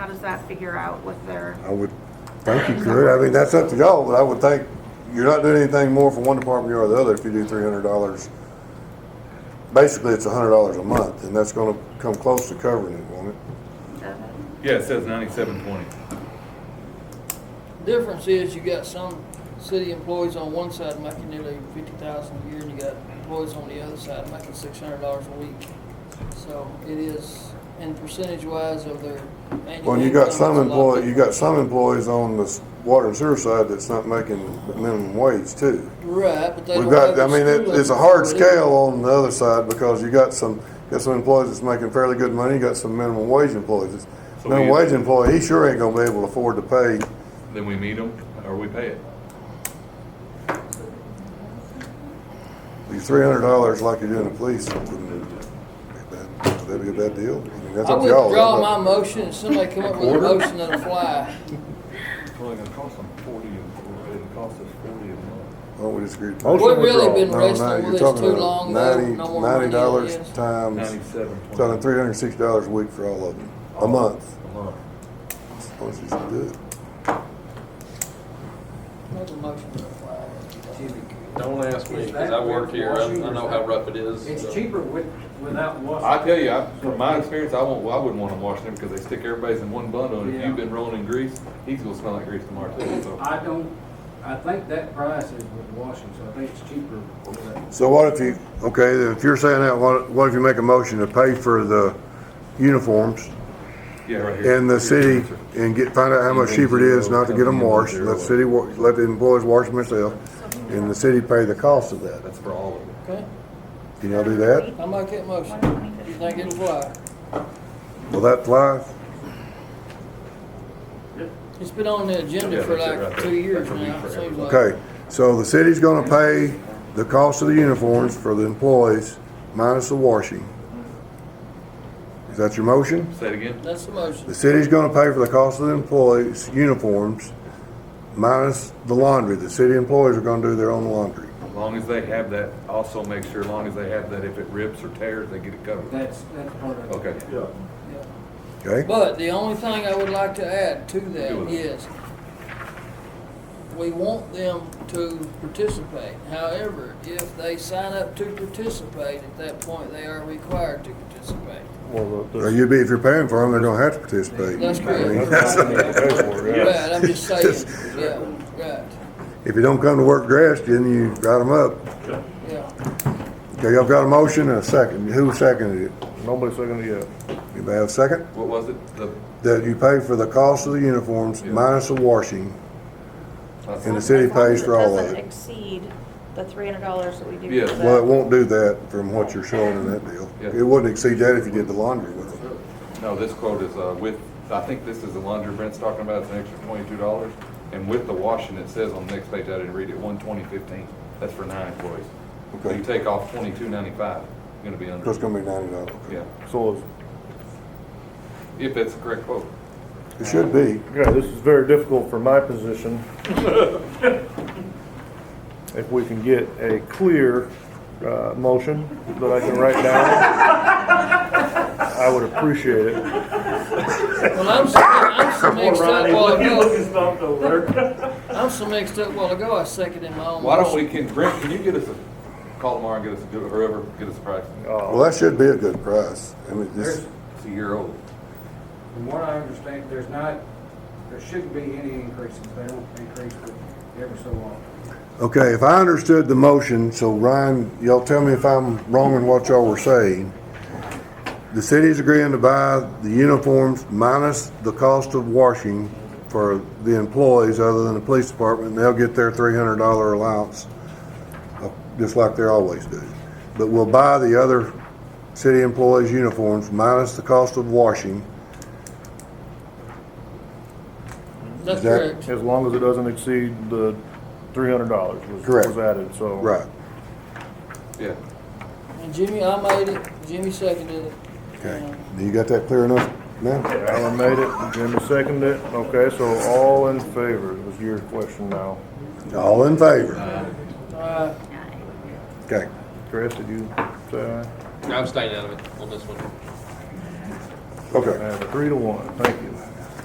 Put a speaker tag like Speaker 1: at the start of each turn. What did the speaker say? Speaker 1: How does that figure out with their,
Speaker 2: I would think you could. I mean, that's up to y'all, but I would think you're not doing anything more for one department or the other if you do three hundred dollars. Basically, it's a hundred dollars a month, and that's gonna come close to covering it, won't it?
Speaker 3: Yeah, it says ninety-seven twenty.
Speaker 4: Difference is you got some city employees on one side making nearly fifty thousand a year and you got employees on the other side making six hundred dollars a week. So it is, and percentage wise of their annual.
Speaker 2: Well, you got
Speaker 4: income,
Speaker 2: some
Speaker 4: it's a lot
Speaker 2: employ, you got some employees on the s- water and sewer side that's not making minimum wage too.
Speaker 4: different. Right, but they
Speaker 2: We've
Speaker 4: don't
Speaker 2: got, I
Speaker 4: have the
Speaker 2: mean, it,
Speaker 4: school
Speaker 2: it's a
Speaker 4: level
Speaker 2: hard
Speaker 4: for living.
Speaker 2: scale on the other side because you got some, got some employees that's making fairly good money, you got some minimum wage employees. It's-
Speaker 3: So we-
Speaker 2: Minimum wage employee, he sure ain't gonna be able to afford to pay
Speaker 3: Then we meet them or we pay it.
Speaker 2: Be three hundred dollars like you're doing the police, wouldn't it? That'd be a bad deal. I mean, that's
Speaker 4: I
Speaker 2: up to y'all.
Speaker 4: withdraw
Speaker 2: I'm
Speaker 4: my
Speaker 2: not-
Speaker 4: motion and somebody come up with a
Speaker 3: Order?
Speaker 4: motion that'll fly.
Speaker 5: Well, it's gonna cost them forty, and- it'll cost us forty a month.
Speaker 2: Why don't we just agree?
Speaker 4: We've
Speaker 5: Motion
Speaker 4: really
Speaker 5: withdrawal.
Speaker 4: been
Speaker 2: No, no,
Speaker 4: wrestling
Speaker 2: you're
Speaker 4: with this
Speaker 2: talking
Speaker 4: too
Speaker 2: about
Speaker 4: long, though.
Speaker 2: Ninety,
Speaker 4: No more
Speaker 2: ninety
Speaker 4: money on
Speaker 2: dollars
Speaker 4: this.
Speaker 2: times,
Speaker 5: Ninety-seven
Speaker 2: talking
Speaker 5: twenty
Speaker 2: three hundred and sixty dollars a week for all of them, a month.
Speaker 5: a month.
Speaker 2: That's the most you should do it.
Speaker 4: Make a motion that'll fly.
Speaker 6: Don't ask me, because I work here, I I know how rough it is.
Speaker 7: It's
Speaker 6: so.
Speaker 7: cheaper with, without
Speaker 3: I
Speaker 7: washing.
Speaker 3: tell you, I, from my experience, I won't, I wouldn't wanna wash them because they stick everybody's in one bundle. And if
Speaker 7: Yeah.
Speaker 3: you've been rolling in grease, he's gonna smell like grease tomorrow too, so.
Speaker 7: I don't, I think that price is with washing, so I think it's cheaper with that.
Speaker 2: So what if you, okay, if you're saying that, what, what if you make a motion to pay for the uniforms
Speaker 3: Yeah, right here.
Speaker 2: in the city and get, find out how much cheaper it is not to get them washed? Let the city, wa- let the employees wash them themselves and the city pay the cost of that.
Speaker 3: That's for all of them.
Speaker 4: Okay,
Speaker 2: Can y'all do that?
Speaker 4: I make that motion. You think it'll fly?
Speaker 2: Will that fly?
Speaker 4: It's been on the agenda
Speaker 3: Yeah,
Speaker 4: for
Speaker 3: that's it right
Speaker 4: like
Speaker 3: there.
Speaker 4: two years
Speaker 3: That's a week
Speaker 4: now,
Speaker 3: for
Speaker 4: it seems
Speaker 3: everybody.
Speaker 4: like.
Speaker 2: Okay, so the city's gonna pay the cost of the uniforms for the employees minus the washing. Is that your motion?
Speaker 3: Say it again?
Speaker 4: That's the motion.
Speaker 2: The city's gonna pay for the cost of the employees' uniforms minus the laundry. The city employees are gonna do their own laundry.
Speaker 3: As long as they have that, also make sure, as long as they have that, if it rips or tears, they get it covered.
Speaker 7: That's, that's part of it.
Speaker 3: Okay.
Speaker 5: Yeah.
Speaker 4: Yeah.
Speaker 2: Okay?
Speaker 4: But the only thing I would like to add to
Speaker 3: Do
Speaker 4: that
Speaker 3: it.
Speaker 4: is we want them to participate. However, if they sign up to participate, at that point, they are required to participate.
Speaker 5: Well, the-
Speaker 2: Or you'd be, if you're paying for them, they don't have to participate.
Speaker 4: That's correct.
Speaker 2: I mean, that's-
Speaker 5: That's what they pay for, yeah.
Speaker 4: Right, I'm just saying, yeah, right,
Speaker 2: If you don't come to work dressed, then you write them up.
Speaker 4: yeah.
Speaker 2: Okay, y'all got a motion and a second. Who seconded it?
Speaker 5: Nobody's second yet.
Speaker 2: Anybody have a second?
Speaker 3: What was it? The,
Speaker 2: that you pay for the cost of the uniforms
Speaker 3: Yeah.
Speaker 2: minus the washing.
Speaker 3: that's-
Speaker 2: And the city
Speaker 8: As long as
Speaker 2: pays for all of
Speaker 8: doesn't
Speaker 2: it.
Speaker 8: exceed the three hundred dollars that we do.
Speaker 3: Yes.
Speaker 8: for that.
Speaker 2: Well, it won't do that from what you're showing in that deal.
Speaker 3: Yeah.
Speaker 2: It wouldn't exceed that if you did the laundry with them.
Speaker 3: No, this quote is uh, with, I think this is the laundry Brent's talking about, it's an extra twenty-two dollars. And with the washing, it says on the next page, I didn't read it, one twenty fifteen, that's for nine employees. So you
Speaker 2: Okay.
Speaker 3: take off twenty-two ninety-five, you're gonna be
Speaker 2: So it's
Speaker 3: under,
Speaker 2: gonna be ninety dollars.
Speaker 3: yeah,
Speaker 5: So, it's-
Speaker 3: if that's the correct quote.
Speaker 2: It should be.
Speaker 5: yeah, this is very difficult for my position. If we can get a clear, uh, motion that I can write down, I would appreciate it.
Speaker 4: Well, I'm so, I'm so mixed up while ago,
Speaker 9: stumped over.
Speaker 4: I'm so mixed up while ago, I seconded my own
Speaker 3: Why don't
Speaker 4: motion.
Speaker 3: we, can, Brent, can you get us a, call tomorrow and get us, a good- or whoever, get us a price?
Speaker 5: Uh,
Speaker 2: Well, that should be a good price. I mean, this,
Speaker 7: There's,
Speaker 3: It's a year old.
Speaker 7: from what I understand, there's not, there shouldn't be any increases. They don't increase it ever so often.
Speaker 2: okay, if I understood the motion, so Ryan, y'all tell me if I'm wrong in what y'all were saying. The city's agreeing to buy the uniforms minus the cost of washing for the employees other than the police department. and They'll get their three hundred dollar allowance, uh, just like they always do. But we'll buy the other city employees' uniforms minus the cost of washing.
Speaker 4: That's
Speaker 2: Is that-
Speaker 4: correct.
Speaker 5: As long as it doesn't exceed the three hundred dollars was,
Speaker 2: Correct.
Speaker 5: was added, so.
Speaker 2: Right,
Speaker 3: Yeah,
Speaker 4: And Jimmy, I made it, Jimmy seconded it.
Speaker 2: okay. Do you got that clear enough now?
Speaker 5: Alan made it, Jimmy seconded it, okay, so all in favor was your question now.
Speaker 2: All in favor?
Speaker 4: And, uh,
Speaker 2: Okay.
Speaker 5: Chris, did you say aye?
Speaker 6: I'm staying out of it on this one.
Speaker 2: Okay.
Speaker 5: I have a three to one, thank you.